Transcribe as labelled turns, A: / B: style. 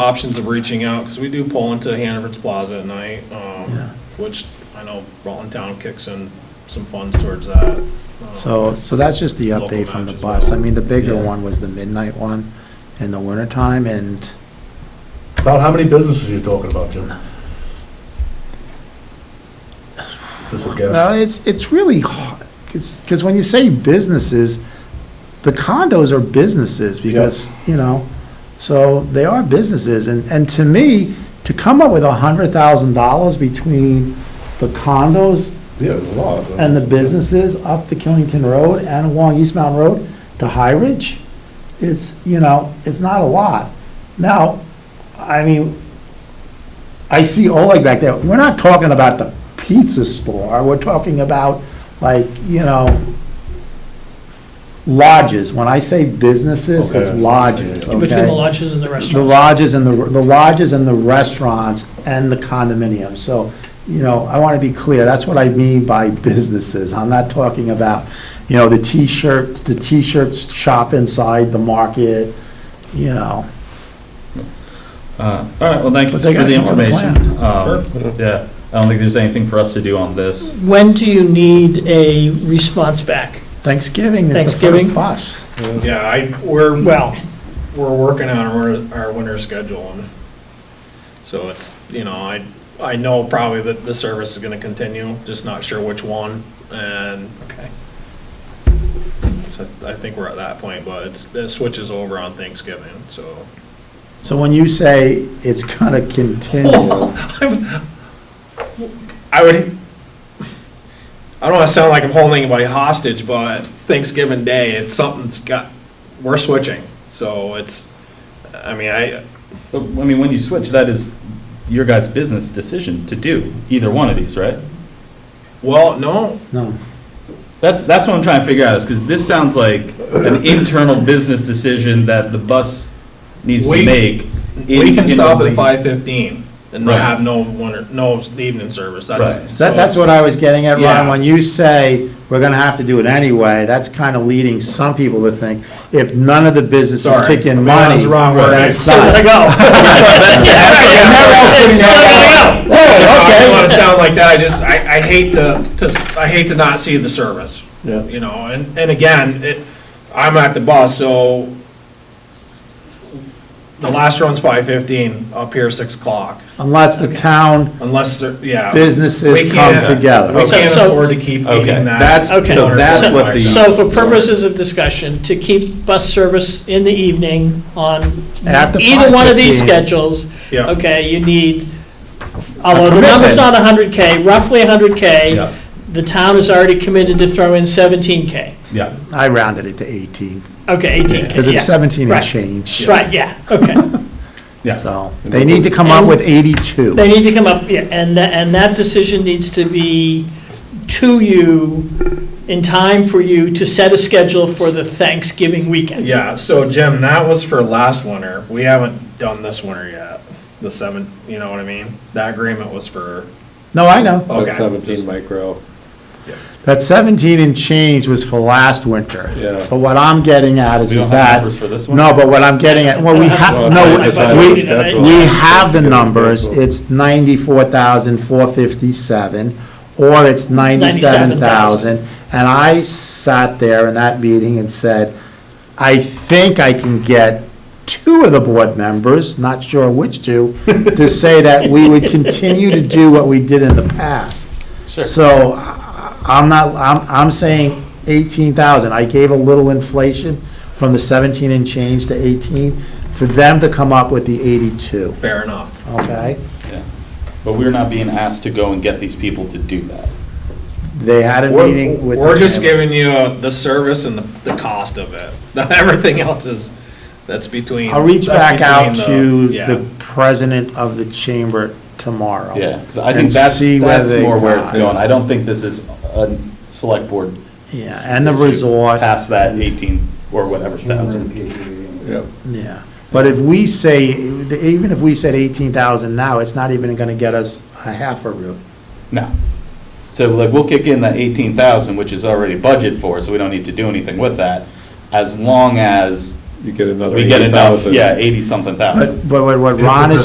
A: options of reaching out, because we do pull into Hannaford's Plaza at night, um,
B: Yeah.
A: which I know Rutland Town kicks in some funds towards that. um,
B: So, so that's just the
A: Local
B: update from the
A: matches.
B: bus. I mean, the bigger
C: Yeah.
B: one was the midnight one in the wintertime, and
C: About how many businesses are you talking about, Jim? Just a
B: Well,
C: guess.
B: it's, it's really, because, because when you say businesses, the condos are businesses because, you know, so they are businesses. And, and to me, to come up with a hundred thousand dollars between the condos
C: Yeah, there's a lot.
B: and the businesses up the Killington Road and along East Mountain Road to High Ridge, it's, you know, it's not a lot. Now, I mean, I see Oleg back there, we're not talking about the pizza store, we're talking about like, you know, lodges. When I say businesses,
C: Okay, I
B: it's
C: see what you're
B: lodges,
C: saying.
D: In between the
B: okay?
D: lodges and the
B: The
D: restaurants.
B: lodges and the, the lodges and the restaurants and the condominiums, so, you know, I want to be clear, that's what I mean by businesses, I'm not talking about, you know, the T-shirt, the T-shirt shop inside the market, you know,
E: Uh, All right, well, thank
B: But
E: you for
B: they got
E: the
B: it from the
E: information. Um, Yeah, I don't think there's anything for us to do on this.
D: When do you need a response back?
B: Thanksgiving is the
D: Thanksgiving.
B: first bus.
A: Um, Yeah, I, we're,
D: Well,
A: we're working on our, our winter schedule, and so it's, you know, I, I know probably that the service is gonna continue, just not sure which one, and
D: okay.
A: so I think we're at that point, but it's, it switches over on Thanksgiving, so.
B: So when you say it's gonna continue,
A: I would, I don't wanna sound like I'm holding anybody hostage, but Thanksgiving Day, it's something's got, we're switching, so it's, I mean, I,
E: But, I mean, when you switch, that is your guys' business decision to do either one of these, right?
A: well, no,
B: no,
E: That's, that's what I'm trying to figure out, is because this sounds like an internal business decision that the bus needs
A: We-
E: to make. in-
A: We can
E: in
A: stop
E: the
A: at
E: week.
A: five fifteen and
E: Right.
A: not have no winter, no evening service, that's.
E: Right.
B: that, that's what I was getting at, Ron,
A: Yeah.
B: when you say we're gonna have to do it anyway, that's kinda leading some people to think, if none of the businesses
A: Sorry.
B: kick
A: I
B: in
A: mean, that
B: money,
A: was the wrong word.
B: then
A: I-
B: it's
A: Still
B: not.
A: gotta
B: Whoa,
A: I don't wanna
B: okay.
A: sound like that, I just, I, I hate to, to, s- I hate to not see the service.
C: Yeah.
A: You know, and, and again, it, I'm at the bus, so the last run's five fifteen, up here six o'clock,
B: Unless the town,
A: unless, there- yeah.
B: Businesses
A: We can't-
B: come together.
A: We
D: So-
A: can't
D: so-
A: afford to keep
E: Okay,
A: eating that.
E: that's,
D: Okay.
E: so that's what the.
D: So for purposes of discussion, to keep bus service in the evening on
B: After
D: either one of these
B: 5:15.
D: schedules,
A: Yeah.
D: okay, you need, although the number's
B: commitment.
D: not 100K, roughly 100K,
E: Yeah,
D: the town is already committed to throw in 17K.
E: yeah,
B: I rounded it to 18,
D: Okay, 18K,
B: because
D: yeah.
B: it's 17 and
D: Right.
B: change.
D: Right, yeah, okay.
E: yeah.
B: So they need to come up with 82.
D: They need to come up, yeah, and, tha- and that decision needs to be to you in time for you to set a schedule for the Thanksgiving weekend.
A: Yeah, so Jim, that was for last winter, we haven't done this winter yet, the seven, you know what I mean? That agreement was for,
B: No, I know.
A: okay.
F: micro.
B: That 17 and change was for last winter.
F: Yeah.
B: But what I'm getting at is,
E: We don't
B: is
E: have
B: that.
E: numbers for this one?
B: No, but what I'm getting at, well, we have,
F: Well,
B: no,
F: I decided
B: we,
F: it's scheduled.
B: we have the numbers.
F: Scheduled.
B: It's 94,457, or it's 97,000. And I sat there in that meeting and said, I think I can get two of the board members, not sure which two, to say that we would continue to do what we did in the past. So I- I'm not, I'm, I'm saying 18,000. I gave a little inflation from the 17 and change to 18 for them to come up with the 82,
A: Fair enough.
B: okay?
E: yeah. But we're not being asked to go and get these people to do that.
B: They had a
A: We're,
B: meeting with.
A: we're just giving you uh, the service and the, the cost of it. Everything else is, that's between.
B: I'll reach
A: that's
B: back out
A: between
B: to
A: yeah.
B: the president of the chamber tomorrow.
E: Yeah, 'cause I
B: and
E: think that's,
B: see where
E: that's
B: they
E: more where it's
B: got.
E: going. I don't think this is a select board
B: Yeah, and the resort.
E: past that 18 or whatever thousand.
C: Yeah.
B: Yeah, but if we say, even if we said eighteen thousand now, it's not even gonna get us a half a route.
E: No. So like, we'll kick in that 18,000, which is already budgeted for, so we don't need to do anything with that, as long as
G: you get another
H: we get enough,
G: 80,000.
H: yeah, eighty-something thousand.
E: But, but what- what
B: If the
E: Ron is